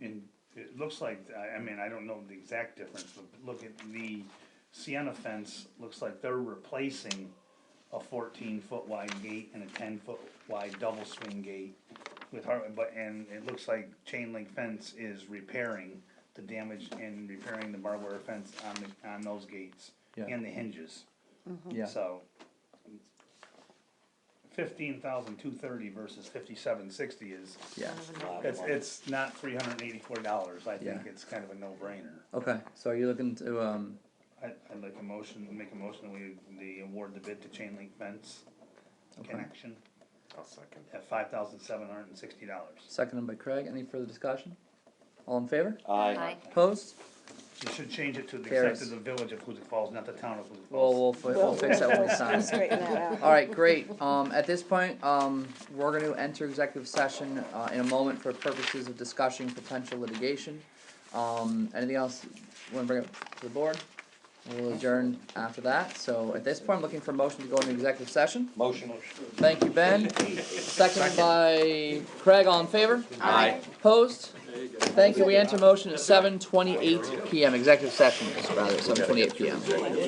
And it looks like, I, I mean, I don't know the exact difference, but look at the Sienna fence, looks like they're replacing a fourteen foot wide gate and a ten foot wide double swing gate with har but, and it looks like chain link fence is repairing the damage and repairing the barbed wire fence on the, on those gates Yeah. and the hinges. Yeah, So. Fifteen thousand two thirty versus fifty-seven sixty is, yeah, it's, it's not three hundred and eighty-four dollars, I think Yeah. it's kind of a no-brainer. okay, so are you looking to, um, I, I'd like a motion, make a motion, we, the award the bid to chain link fence connection I'll second. at five thousand seven hundred and sixty dollars. seconded by Craig, any further discussion? All in favor? Aye. Opposed? You should change it to the Carries. except of the village of Huzik Falls, not the town of Huzik Well, Falls. we'll, fi- we'll fix that when we sign it. Straighten that out. Alright, great, um, at this point, um, we're gonna enter executive session, uh, in a moment for purposes of discussing potential litigation. Um, anything else, you wanna bring up to the board? We'll adjourn after that, so at this point, I'm looking for a motion to go into executive session, Motion. thank you, Ben, seconded by Craig, all in favor? Aye. Opposed? Thank you, we enter motion at seven twenty-eight PM, executive session, rather, seven twenty-eight PM.